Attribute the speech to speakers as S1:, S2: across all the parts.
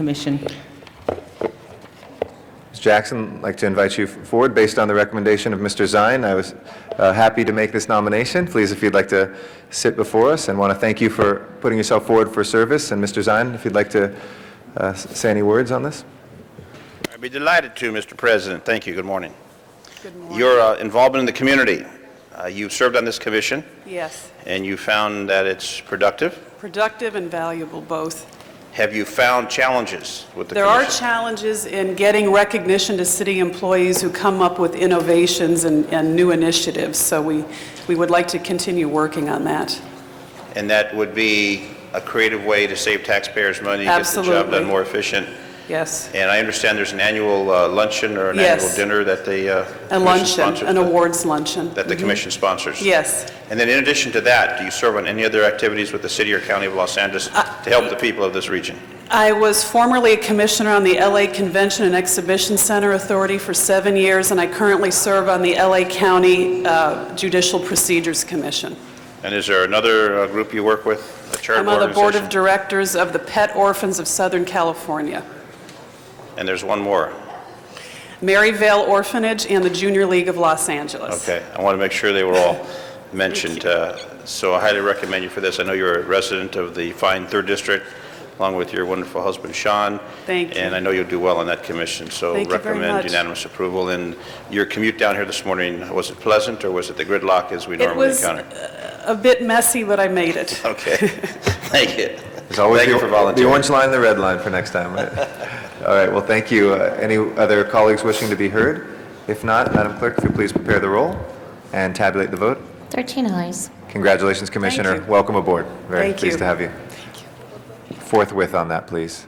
S1: Commission.
S2: Ms. Jackson, I'd like to invite you forward based on the recommendation of Mr. Zine. I was uh, happy to make this nomination. Please, if you'd like to sit before us, and want to thank you for putting yourself forward for service. And Mr. Zine, if you'd like to uh, s- say any words on this?
S3: I'd be delighted to, Mr. President. Thank you. Good morning. Good morning. Your uh, involvement in the community, uh, you've served on this commission,
S4: Yes,
S3: and you found that it's productive.
S4: productive and valuable both.
S3: Have you found challenges with the
S4: There are
S3: commission?
S4: challenges in getting recognition to city employees who come up with innovations and, and new initiatives, so we, we would like to continue working on that.
S3: And that would be a creative way to save taxpayers' money, get the job
S4: Absolutely.
S3: done more efficient.
S4: Yes.
S3: And I understand there's an annual uh, luncheon or an
S4: Yes.
S3: annual dinner that the uh,
S4: A
S3: commission
S4: luncheon,
S3: sponsors-
S4: an awards luncheon. Mm-hmm.
S3: That the commission sponsors.
S4: Yes.
S3: And then in addition to that, do you serve on any other activities with the city or county of Los Angeles to help the people of this region?
S4: I was formerly a commissioner on the LA Convention and Exhibition Center Authority for seven years, and I currently serve on the LA County uh, Judicial Procedures Commission.
S3: And is there another uh, group you work with, a
S4: I'm
S3: charitable
S4: on the Board of
S3: organization?
S4: Directors of the Pet Orphans of Southern California.
S3: And there's one more.
S4: Maryvale Orphanage and the Junior League of Los Angeles.
S3: Okay, I want to make sure they were all mentioned. uh, So I highly recommend you for this. I know you're a resident of the fine Third District, along with your wonderful husband Sean.
S4: Thank you.
S3: And I know you'll do well on that commission, so
S4: Thank you very
S3: recommend
S4: much.
S3: unanimous approval. And your commute down here this morning, was it pleasant, or was it the gridlock as we
S4: It
S3: normally
S4: was
S3: encounter?
S4: uh, a bit messy, but I made it.
S3: Okay, thank you.
S2: There's always
S3: Thank you
S2: the-
S3: for volunteering.
S2: The orange line, and the red line for next time. right? All right, well, thank you. Uh, Any other colleagues wishing to be heard? If not, Madam Clerk, if you please prepare the roll and tabulate the vote.
S5: 13 eyes.
S2: Congratulations, Commissioner.
S4: you.
S2: Welcome aboard. Very
S4: Thank
S2: pleased
S4: you.
S2: to have you. Forthwith on that, please.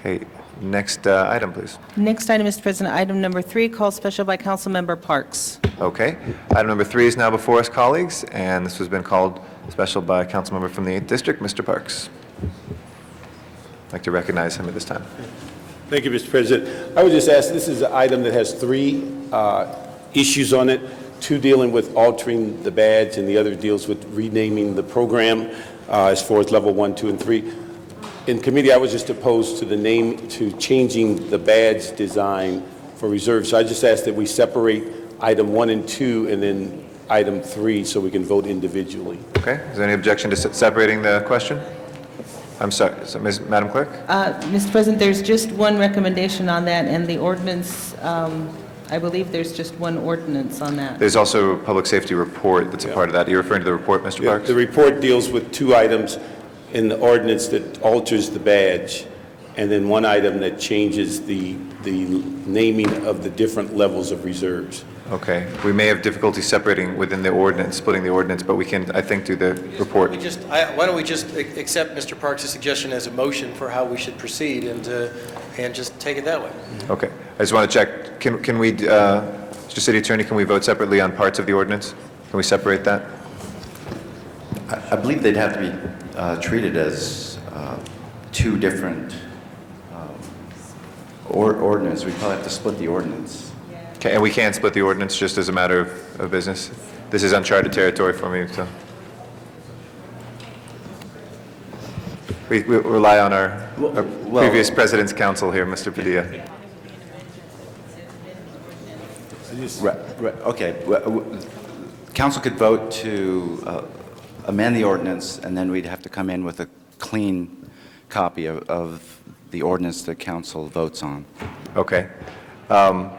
S2: Okay, next uh, item, please.
S1: Next item, Mr. President, item number three, called special by Councilmember Parks.
S2: Okay, item number three is now before us, colleagues, and this has been called special by a council member from the 8th District, Mr. Parks. I'd like to recognize him at this time.
S6: Thank you, Mr. President. I would just ask, this is an item that has three uh, issues on it, two dealing with altering the badge, and the other deals with renaming the program uh, as far as level one, two, and three. In committee, I was just opposed to the name, to changing the badge design for reserves. So I just ask that we separate item one and two, and then item three, so we can vote individually.
S2: Okay, is there any objection to se- separating the question? I'm sorry, so, Ms. Madam Clerk?
S1: Uh, Mr. President, there's just one recommendation on that, and the ordinance, um, I believe there's just one ordinance on that.
S2: There's also a public safety report that's a part of that. Are you referring to the report, Mr.
S6: Yeah,
S2: Parks?
S6: The report deals with two items in the ordinance that alters the badge, and then one item that changes the, the naming of the different levels of reserves.
S2: Okay, we may have difficulty separating within the ordinance, splitting the ordinance, but we can, I think, do the report.
S7: We just, I- why don't we just ac- accept Mr. Parks' suggestion as a motion for how we should proceed and, uh, and just take it that way?
S2: Okay, I just want to check, can, can we, uh, Mr. City Attorney, can we vote separately on parts of the ordinance? Can we separate that?
S8: I believe they'd have to be uh, treated as uh, two different um, or- ordinance. We'd probably have to split the ordinance.
S2: Okay, and we can split the ordinance just as a matter of, of business? This is uncharted territory for me, so. We, we rely on our, our
S8: well-
S2: previous president's counsel here, Mr. Padilla.
S8: Right, right, okay. Well, w- Council could vote to uh, amend the ordinance, and then we'd have to come in with a clean copy of- of the ordinance that council votes on.
S2: Okay. Um,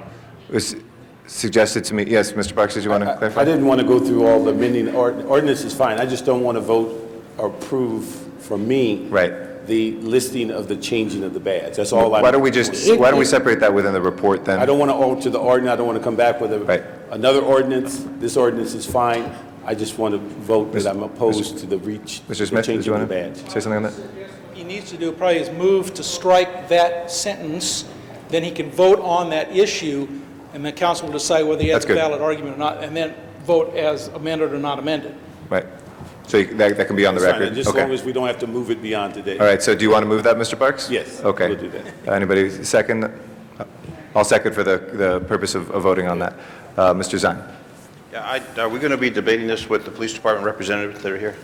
S2: It was suggested to me, yes, Mr. Parks, did you want to clarify?
S6: I didn't want to go through all the amending, ord- ordinance is fine, I just don't want to vote or approve for me.
S2: Right.
S6: The listing of the changing of the badge, that's all I.
S2: Why don't we just, why don't we separate that within the report then?
S6: I don't want to alter the ordinance, I don't want to come back with
S2: Right.
S6: a, another ordinance, this ordinance is fine, I just want to vote that I'm opposed to the reach,
S2: Mr.
S6: the
S2: Smith, did you
S6: changing of the
S2: want
S6: badge.
S2: to say something on that?
S9: he needs to do probably is move to strike that sentence, then he can vote on that issue, and the council will decide whether he
S2: That's
S9: has a
S2: good.
S9: valid argument or not, and then vote as amended or not amended.
S2: Right. So you- that, that can be on the
S6: That's fine,
S2: record?
S6: Just as
S2: Okay.
S6: long as we don't have to move it beyond today.
S2: All right, so do you want to move that, Mr. Parks?
S6: Yes,
S2: Okay. Uh,
S6: we'll do that.
S2: Anybody second? Uh, I'll second for the, the purpose of of voting on that. Uh, Mr. Zine?
S3: Yeah, I- Are we going to be debating this with the police department representatives that are here?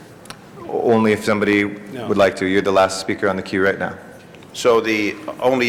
S2: Only if somebody would like to. You're the last speaker on the queue right now.
S3: So the only